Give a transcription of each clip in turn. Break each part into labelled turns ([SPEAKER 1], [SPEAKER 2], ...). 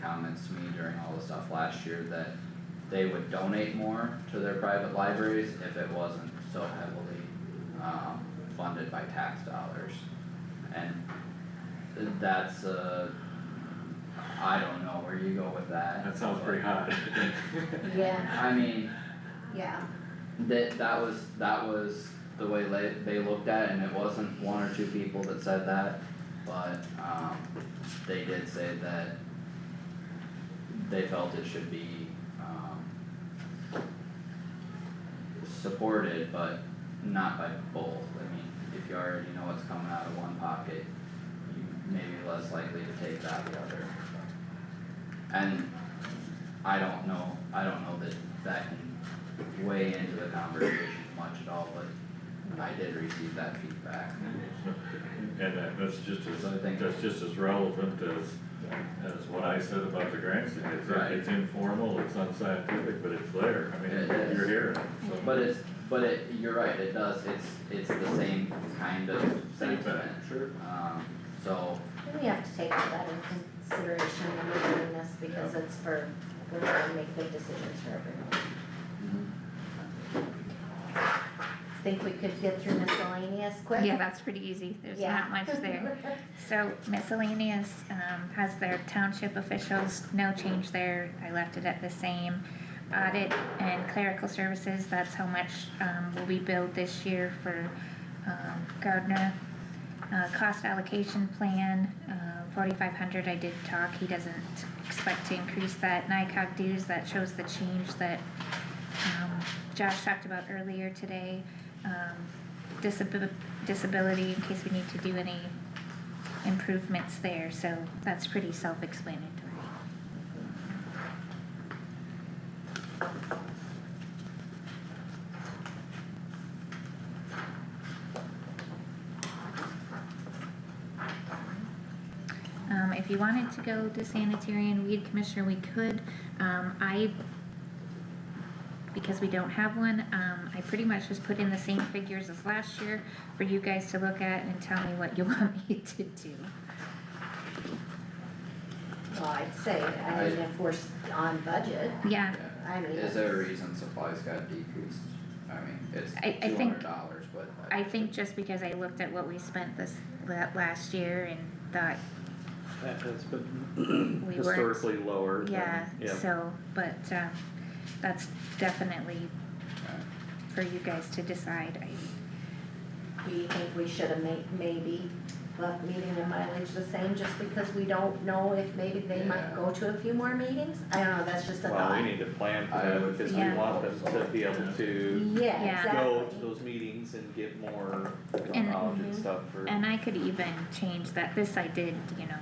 [SPEAKER 1] comments to me during all the stuff last year that they would donate more to their private libraries if it wasn't so heavily, um, funded by tax dollars. And that's I I don't know where you go with that.
[SPEAKER 2] That sounds pretty hot.
[SPEAKER 3] Yeah,
[SPEAKER 1] I mean,
[SPEAKER 3] yeah,
[SPEAKER 1] that, that was, that was the way they, they looked at it, and it wasn't one or two people that said that, but, um, they did say that they felt it should be, um, supported, but not by both, I mean, if you already know what's coming out of one pocket, you may be less likely to take that the other. And I don't know, I don't know that that can way into the conversation much at all, but I did receive that feedback.
[SPEAKER 2] And that, that's just as,
[SPEAKER 1] I think-
[SPEAKER 2] that's just as relevant as, as what I said about the grants, it's,
[SPEAKER 1] Right.
[SPEAKER 2] it's informal, it's unscientific, but it's there, I mean,
[SPEAKER 1] It is.
[SPEAKER 2] you're hearing it, so.
[SPEAKER 1] But it's, but it, you're right, it does, it's, it's the same kind of sentiment,
[SPEAKER 2] Sure.
[SPEAKER 1] um, so,
[SPEAKER 3] we have to take all that into consideration when we're doing this because it's for, we're trying to make good decisions for everyone. Think we could get through miscellaneous quick?
[SPEAKER 4] Yeah, that's pretty easy, there's
[SPEAKER 3] Yeah.
[SPEAKER 4] not much there. So miscellaneous, um, has their township officials, no change there, I left it at the same. Audit and clerical services, that's how much, um, will be billed this year for, um, Gardner. Uh, cost allocation plan, uh, forty-five hundred, I did talk, he doesn't expect to increase that. NICOG dues, that shows the change that, um, Josh talked about earlier today. Um, disabil- disability in case we need to do any improvements there, so that's pretty self-explanatory. Um, if you wanted to go to sanitary and weed commissioner, we could, um, I because we don't have one, um, I pretty much just put in the same figures as last year for you guys to look at and tell me what you want me to do.
[SPEAKER 3] Well, I'd say, I mean, if we're s- on budget,
[SPEAKER 4] Yeah,
[SPEAKER 1] yeah.
[SPEAKER 3] I mean.
[SPEAKER 1] Is there a reason supplies got decreased? I mean, it's
[SPEAKER 4] I- I
[SPEAKER 1] two
[SPEAKER 4] think-
[SPEAKER 1] hundred dollars, but.
[SPEAKER 4] I think just because I looked at what we spent this, that last year and thought
[SPEAKER 5] That has been
[SPEAKER 4] We weren't-
[SPEAKER 5] historically lower than,
[SPEAKER 4] Yeah,
[SPEAKER 5] yeah.
[SPEAKER 4] so, but, um, that's definitely uh, for you guys to decide, I,
[SPEAKER 3] Do you think we should have made, maybe left meeting and mileage the same just because we don't know if maybe they might
[SPEAKER 1] Yeah.
[SPEAKER 3] go to a few more meetings? I don't know, that's just a thought.
[SPEAKER 5] Well, we need to plan for
[SPEAKER 1] I
[SPEAKER 5] that
[SPEAKER 1] would
[SPEAKER 5] because we
[SPEAKER 4] Yeah.
[SPEAKER 5] want them to be able to
[SPEAKER 3] Yeah,
[SPEAKER 4] Yeah.
[SPEAKER 5] go to
[SPEAKER 3] exactly.
[SPEAKER 5] those meetings and get more
[SPEAKER 4] And- mm-hmm.
[SPEAKER 5] knowledge and
[SPEAKER 3] Mhm.
[SPEAKER 5] stuff for.
[SPEAKER 4] and I could even change that, this I did, you know,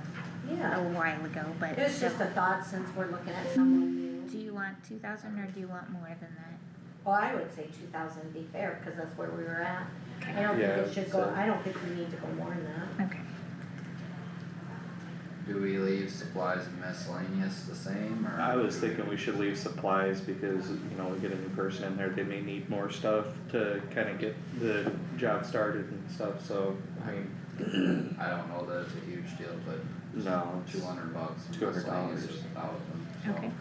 [SPEAKER 4] a
[SPEAKER 3] Yeah,
[SPEAKER 4] while ago, but.
[SPEAKER 3] it's just a thought since we're looking at someone new.
[SPEAKER 4] Do you want two thousand or do you want more than that?
[SPEAKER 3] Well, I would say two thousand be fair, cause that's where we were at. I
[SPEAKER 4] Okay,
[SPEAKER 3] don't think
[SPEAKER 5] Yeah,
[SPEAKER 3] it should go,
[SPEAKER 5] so-
[SPEAKER 3] I don't think we need to go more than that.
[SPEAKER 4] okay,
[SPEAKER 1] Do we leave supplies and miscellaneous the same, or?
[SPEAKER 5] I was thinking we should leave supplies because, you know, we get a new person in there, they may need more stuff to kinda get the job started and stuff, so, I mean,
[SPEAKER 1] I don't know that it's a huge deal, but
[SPEAKER 5] no. it's-
[SPEAKER 1] two hundred bucks,
[SPEAKER 5] Two hundred
[SPEAKER 1] miscellaneous
[SPEAKER 5] dollars.
[SPEAKER 1] is a thousand, so.
[SPEAKER 4] okay,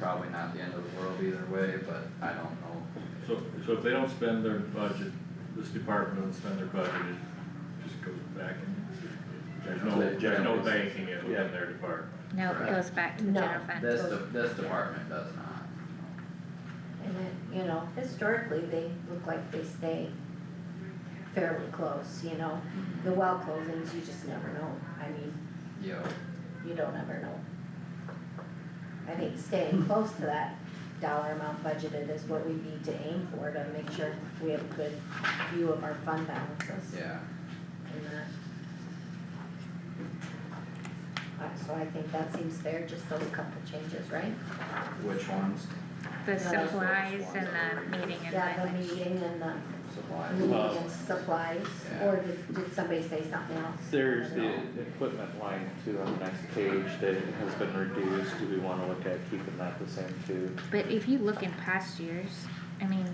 [SPEAKER 1] Probably not the end of the world either way, but I don't know.
[SPEAKER 2] So, so if they don't spend their budget, this department doesn't spend their budget, it just goes back and, there's no, there's no banking it within their department.
[SPEAKER 4] no, it
[SPEAKER 1] Right.
[SPEAKER 4] goes back to the
[SPEAKER 3] No.
[SPEAKER 4] general fund.
[SPEAKER 1] This, de- this department does not.
[SPEAKER 3] And then, you know, historically, they look like they stay fairly close, you know? The well closings, you just never know, I mean,
[SPEAKER 1] Yo,
[SPEAKER 3] you don't ever know. I think staying close to that dollar amount budgeted is what we need to aim for to make sure we have a good view of our fund balances
[SPEAKER 1] yeah,
[SPEAKER 3] and that. Uh, So I think that seems fair, just those couple changes, right?
[SPEAKER 1] which ones,
[SPEAKER 4] The
[SPEAKER 3] Yeah, that's
[SPEAKER 4] supplies
[SPEAKER 1] the
[SPEAKER 4] and
[SPEAKER 1] ones that
[SPEAKER 4] the meeting and
[SPEAKER 3] Yeah, the
[SPEAKER 4] mileage.
[SPEAKER 3] meeting and the
[SPEAKER 1] supplies?
[SPEAKER 3] meeting
[SPEAKER 5] Well-
[SPEAKER 3] and supplies, or did, did somebody say something else?
[SPEAKER 5] There's
[SPEAKER 3] I
[SPEAKER 5] the
[SPEAKER 3] don't know.
[SPEAKER 5] equipment line too on the next page that has been reduced, do we wanna look at keeping that the same too?
[SPEAKER 4] But if you look in past years, I mean,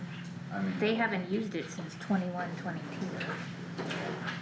[SPEAKER 1] I mean.
[SPEAKER 4] they haven't used it since twenty-one, twenty-two.